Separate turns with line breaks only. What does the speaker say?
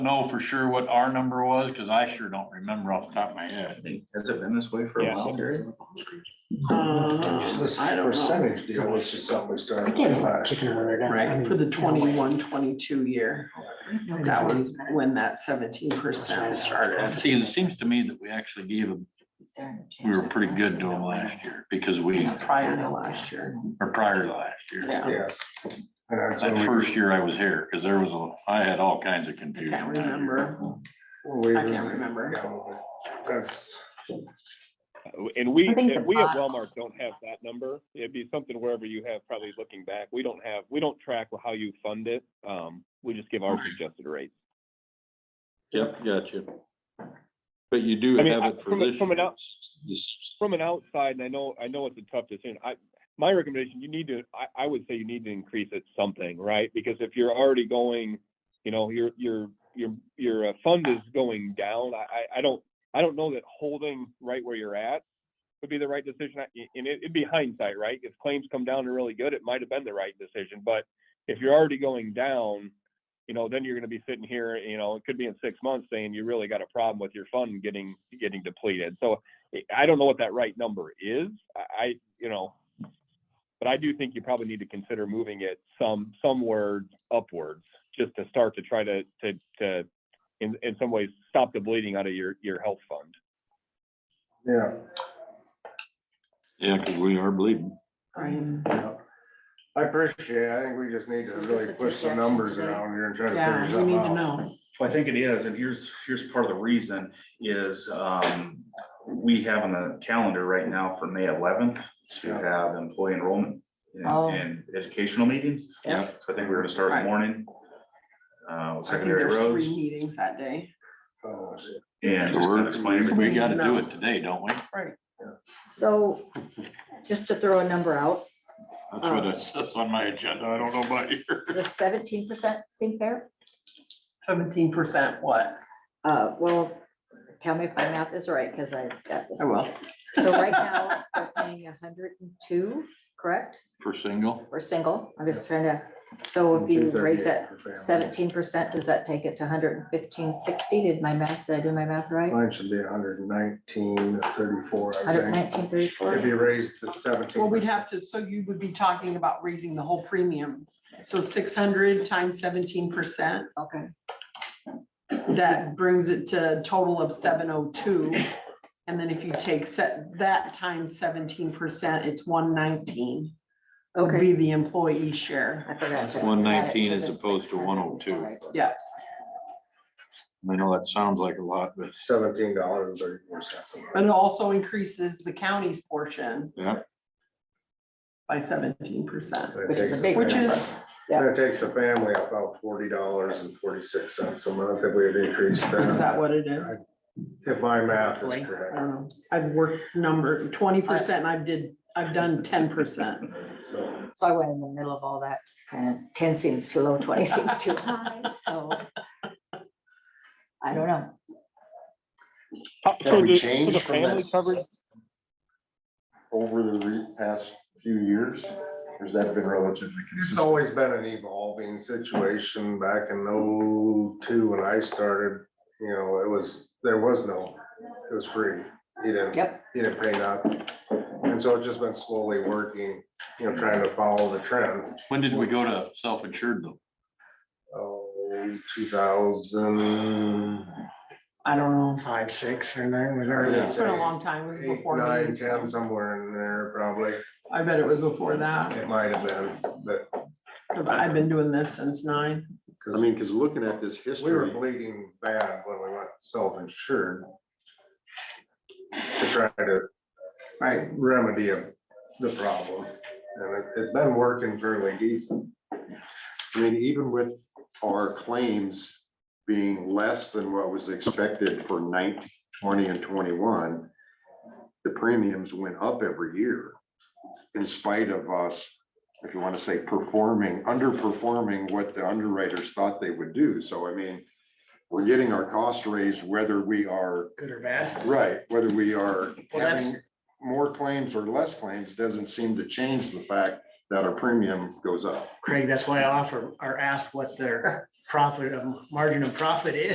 know for sure what our number was, because I sure don't remember off the top of my head.
Has it been this way for a
Yes.
while, Gary?
Uh,
This
I don't know.
percentage deal was just something we started.
Yeah.
Kicking around again.
Right.
For the twenty-one, twenty-two year, that was when that seventeen percent started.
See, it seems to me that we actually gave them, we were pretty good to them last year, because we,
It's prior to last year,
or prior to last year.
yeah.
Yes. And that's
That
when
first year I was here, because there was a, I had all kinds of
I
confusion.
can't
that year.
remember,
we-
I can't remember.
Yeah, That's.
And we,
I think
and
the
we at
bot-
Walmart don't have that number. It'd be something wherever you have, probably looking back, we don't have, we don't track how you fund it. Um, we just give our suggested rates.
Yep, gotcha. But you do
I
have
mean, I-
it for
from a-
this.
from an
year.
out-
This-
From an outside, and I know, I know it's a tough decision, I, my recommendation, you need to, I, I would say you need to increase it something, right? Because if you're already going, you know, your, your, your, your uh, fund is going down, I, I, I don't, I don't know that holding right where you're at would be the right decision, I- and it, it'd be hindsight, right? If claims come down and really good, it might have been the right decision, but if you're already going down, you know, then you're gonna be sitting here, you know, it could be in six months saying you really got a problem with your fund getting, getting depleted, so I don't know what that right number is. I, I, you know, but I do think you probably need to consider moving it some, somewhere upwards, just to start to try to, to, to, in, in some ways, stop the bleeding out of your, your health fund.
Yeah.
Yeah, because we are bleeding.
Um,
yeah. I appreciate it. I think we just need to
So is
really
this a
push some
projection
numbers
today?
around here and try to
Yeah,
figure
we
something
need to
out.
know.
Well, I think it is, and here's, here's part of the reason is, um, we have on the calendar right now for May eleventh to have employee enrollment and-
Oh.
and educational meetings.
Yep.
So I think we're gonna start in the
Right.
morning, uh, with
I think
secondary
there's
roads.
three meetings that day.
Oh, shit.
And
So
just kind of explain
we're-
it.
We gotta do it today, don't we?
Right.
So just to throw a number out,
That's
Uh.
what it says on my agenda. I don't know about you.
the seventeen percent seem fair?
Seventeen percent what?
Uh, well, tell me if my math is right, because I got this.
I will.
So right now, we're paying hundred and two, correct?
For single,
We're single. I'm just trying to, so if you raise that seventeen percent, does that take it to hundred and fifteen sixty? Did my math, did I do my math right?
Mine should be hundred and nineteen, thirty-four, I
Hundred
think.
nineteen
If
thirty-four?
you raised the seventeen.
Well, we'd have to, so you would be talking about raising the whole premium. So six hundred times seventeen percent,
Okay,
that brings it to a total of seven oh two. And then if you take set, that times seventeen percent, it's one nineteen. Would
okay.
be the employee share.
I forgot to. add it to
119 as
the
opposed to 102.
600. All right.
Yeah,
I know that sounds like a lot, but
Seventeen dollars and thirty-four cents.
but it also increases the county's portion.
Yeah.
By seventeen percent,
Which is a big
which is,
Yeah.
That takes the family about forty dollars and forty-six cents a month if we had increased
is that
that,
what it is?
if my math is
Roughly. I
Um,
correct.
don't know. I've worked number twenty percent, I've did, I've done ten percent.
So,
So I went in the middle of all that, kind of ten seems too low, twenty seems too high, so. I don't know.
How-
Have
so
we
the- so
changed
the
from
family
this?
coverage-
over the re- past few years? Or has that been relatively
It's
consistent?
always been an evolving situation back in oh-two when I started, you know, it was, there was no, it was free. You didn't,
Yep,
you didn't pay nothing. And so it's just been slowly working, you know, trying to follow the trend.
when did we go to self-insured though?
Oh, two thousand.
I don't know.
Five, six, or nine, was
It's been a long time. It was
Eight,
before me.
nine, ten, somewhere in there, probably.
I bet it was before that,
It might have been, but,
'cause I've been doing this since nine.
I mean, because looking at this
we were
history,
bleeding bad when we went self-insured. To try to
Right.
remedy of the problem, and it- it's been working fairly decent.
I mean, even with our claims being less than what was expected for 19, 20, and twenty-one, the premiums went up every year in spite of us, if you want to say performing, underperforming what the underwriters thought they would do. So I mean, we're getting our cost raised whether we are
Good or bad?
Right, whether we are
Well, that's-
having more claims or less claims doesn't seem to change the fact that our premium goes up.
uh,
Craig, that's why I offer or ask what their profit, of margin of profit is.